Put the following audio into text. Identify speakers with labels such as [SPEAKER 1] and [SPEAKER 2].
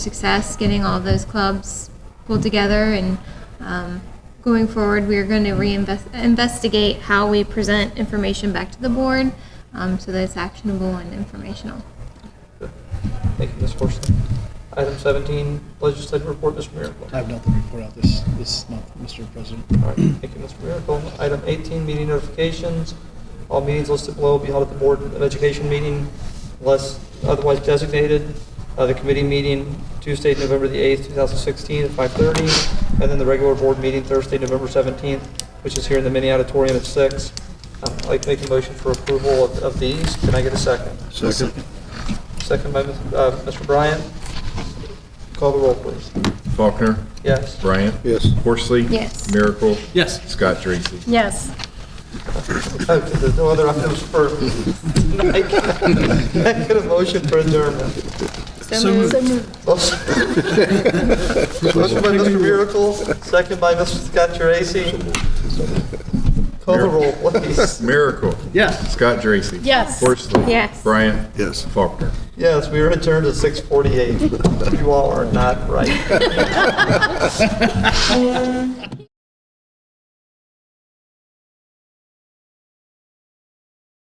[SPEAKER 1] success getting all those clubs pulled together and um, going forward we are going to reinvestigate how we present information back to the board um, so that it's actionable and informational
[SPEAKER 2] Thank you, Ms. Horsley. Item 17, legislative report, Mr. Miracle.
[SPEAKER 3] I have nothing to report out this, this month, Mr. President.
[SPEAKER 2] All right, thank you, Mr. Miracle. Item 18, meeting notifications. All meetings listed below will be held at the Board of Education meeting unless otherwise designated. Uh, The committee meeting Tuesday, November the 8th, 2016 at 5:30, and then the regular board meeting Thursday, November 17th, which is here in the mini auditorium at 6. Um, I'd like to make a motion for approval of- of these. Can I get a second?
[SPEAKER 4] Second.
[SPEAKER 2] Second by Ms. uh, Mr. Bryant. Call the roll, please.
[SPEAKER 4] Faulkner.
[SPEAKER 2] Yes.
[SPEAKER 4] Bryant.
[SPEAKER 5] Yes.
[SPEAKER 4] Horsley.
[SPEAKER 1] Yes.
[SPEAKER 4] Miracle.
[SPEAKER 3] Yes.
[SPEAKER 4] Scott Dracy.
[SPEAKER 6] Yes.
[SPEAKER 2] Okay, There's no other items for tonight. Can I Get a motion for adjournment.
[SPEAKER 6] So moved.
[SPEAKER 2] Motion motion by Mr. Miracle, second by Mr. Scott Geraci. Call the roll, please.
[SPEAKER 4] Miracle.
[SPEAKER 3] Yes.
[SPEAKER 4] Scott Dracy.
[SPEAKER 6] Yes.
[SPEAKER 4] Horsley.
[SPEAKER 1] Yes.
[SPEAKER 4] Bryant.
[SPEAKER 5] Yes.
[SPEAKER 4] Faulkner.
[SPEAKER 2] Yes, we are adjourned at 6:48. You all are not right.